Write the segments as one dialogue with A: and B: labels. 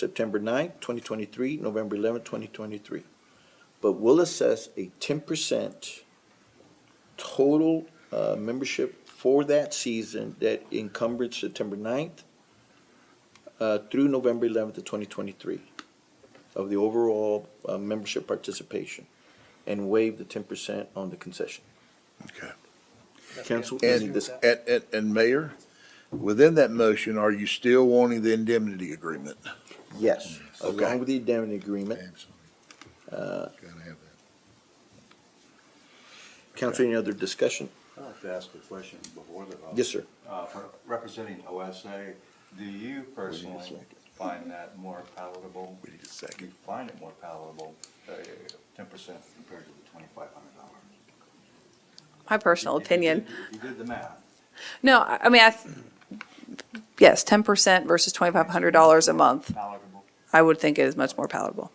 A: September 9th, 2023, November 11th, 2023. But we'll assess a 10% total uh, membership for that season that encumbered September 9th uh, through November 11th of 2023 of the overall uh, membership participation and waive the 10% on the concession.
B: Okay.
A: Council, any
B: And,
A: dis-
B: and, and- and Mayor, within that motion, are you still wanting the indemnity agreement?
A: yes,
B: Okay.
A: along with the indemnity agreement.
B: Uh,
A: Council, any other discussion?
C: I'd like to ask a question before the vote.
A: Yes, sir.
C: Uh, for representing OSA, do you personally find that more palatable?
B: We need a second.
C: Do you find it more palatable, uh, ten percent compared to the twenty-five hundred dollars?
D: my personal opinion.
C: You did the math.
D: No, I I mean, I, th- yes, ten percent versus twenty-five hundred dollars a month,
C: Palatable?
D: I would think it is much more palatable.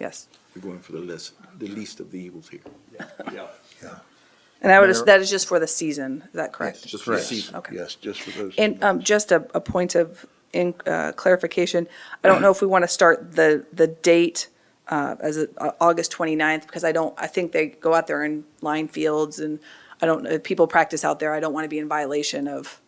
D: Yes.
A: We're going for the less, the least of the evils here.
C: Yeah.
D: And I would,
B: Mayor-
D: that is just for the season, is that correct?
A: Just for the season.
D: Okay.
B: Yes, just for those.
D: And um, just a, a point of in- uh, clarification, I don't know if we want to start the, the date uh, as a- uh, August 29th, because I don't, I think they go out there in line fields, and I don't, know if people practice out there, I don't want to be in violation of,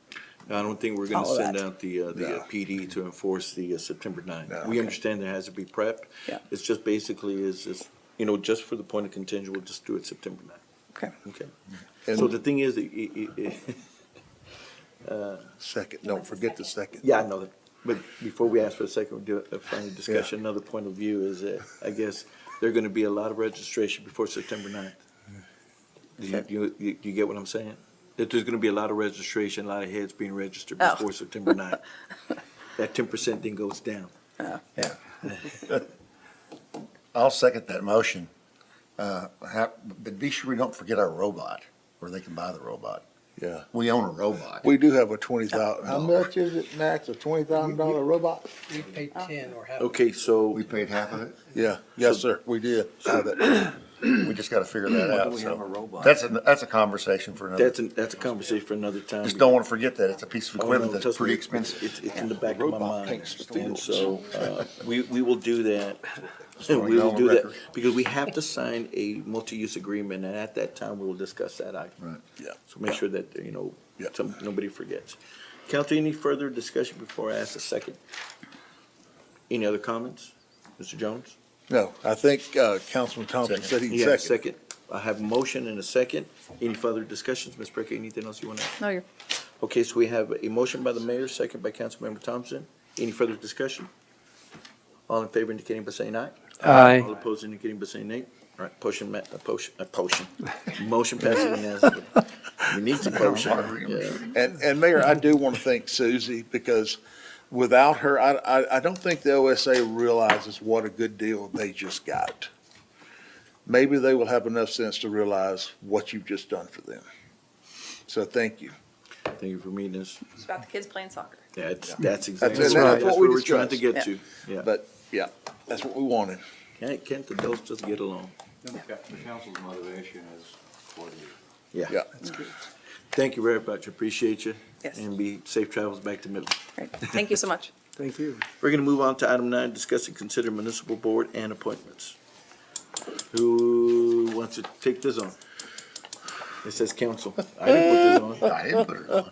A: I don't think we're gonna
D: All of
A: send
D: that.
A: out the, uh, the
B: No.
A: uh, PD to enforce the uh, September ninth.
B: No.
A: We understand there has to be prep.
D: Yeah.
A: It's just basically is, is, you know, just for the point of contention, we'll just do it September ninth,
D: okay.
A: okay?
B: And
A: So the thing is, that i- i- i-
B: second, don't forget the second.
A: yeah, I know that, but before we ask for a second, we do a final discussion, another point of view is that, I guess, there are gonna be a lot of registration before September ninth. Do you, you, you- you get what I'm saying? That there's gonna be a lot of registration, a lot of heads being registered
D: Oh.
A: before September ninth. That ten percent thing goes down.
E: Yeah. I'll second that motion. Uh, ha- But be sure we don't forget our robot, where they can buy the robot.
B: Yeah.
E: We own a robot.
B: We do have a twenty thousand.
F: How much is it, Max, a twenty thousand dollar robot?
G: We paid ten or half.
A: Okay, so.
E: We paid half of it.
B: Yeah, yes, sir, we did. have it.
E: We just got to figure that out.
C: we
E: so.
C: have a robot?
E: That's, a- that's a conversation for another.
A: That's, an- that's a conversation for another time.
E: Just don't want to forget that. It's a piece of
A: Oh, no,
E: equipment that's
A: trust me,
E: pretty expensive.
A: It's, it's in the back of my
B: Robot
A: mind,
B: paints the
A: and
B: fields.
A: so, uh, we, we will do that. We
E: wanna go
A: will
E: on
A: do that,
E: record.
A: because we have to sign a multi-use agreement, and at that time, we will discuss that item.
E: Right.
B: Yeah.
A: So make sure that, you know,
B: Yeah.
A: some, nobody forgets. Council, any further discussion before I ask a second? Any other comments? Mr. Jones?
B: No, I think, uh, Councilman Thompson said
A: You have
B: he'd
A: a
B: second.
A: Second. I have a motion and a second. Any further discussions? Ms. Baker, anything else you want to add?
D: No, you're,
A: Okay, so we have a motion by the mayor, second by Councilmember Thompson. Any further discussion? All in favor indicating by saying aye.
G: Aye.
A: All opposed indicating by saying nay. All right, potion, ma- uh, potion, uh, potion. Motion passes unanimously. We need some potion. Yeah.
B: And, and Mayor, I do want to thank Susie because without her, I, I, I don't think the OSA realizes what a good deal they just got. Maybe they will have enough sense to realize what you've just done for them. So thank you.
A: Thank you for meeting us.
D: it's about the kids playing soccer.
A: That's, that's exactly.
B: That's
A: what-
B: right.
A: That's
B: what we
A: where we're trying to get
D: discussed.
A: to. Yeah.
B: But yeah, that's what we wanted.
A: Can't, can't the adults just get along?
C: The council's motivation is for the,
B: Yeah.
A: Thank you very much. Appreciate you.
D: Yes.
A: And be safe travels back to Midland.
D: Great. Thank you so much.
G: Thank you.
A: We're gonna move on to item nine, discuss and consider municipal board and appointments. Who wants to take this on? It says council. I didn't put this on.
E: I didn't put it on.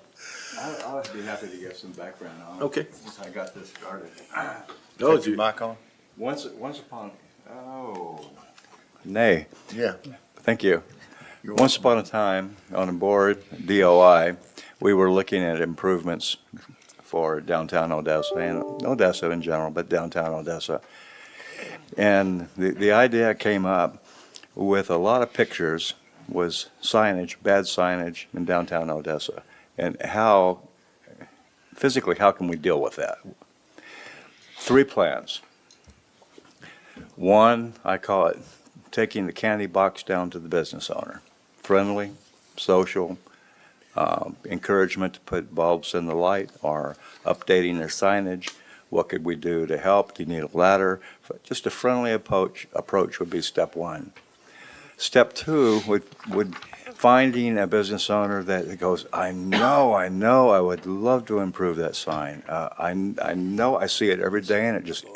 C: I, I would be happy to get some background on it.
A: Okay.
C: Since I got this started.
A: No,
E: Is
A: dude.
E: your mic on?
C: Once, once upon, oh,
H: Nay,
E: Yeah.
H: thank you.
E: You're
H: Once
E: welcome.
H: upon a time, on the board, DOI, we were looking at improvements for downtown Odessa and Odessa in general, but downtown Odessa. And the, the idea came up with a lot of pictures was signage, bad signage in downtown Odessa. And how, physically, how can we deal with that? Three plans. One, I call it taking the candy box down to the business owner. Friendly, social, um, encouragement to put bulbs in the light or updating their signage. What could we do to help? Do you need a ladder? F- Just a friendly approach, approach would be step one. Step two would, would finding a business owner that goes, I know, I know, I would love to improve that sign. Uh, I, I know, I see it every day and it just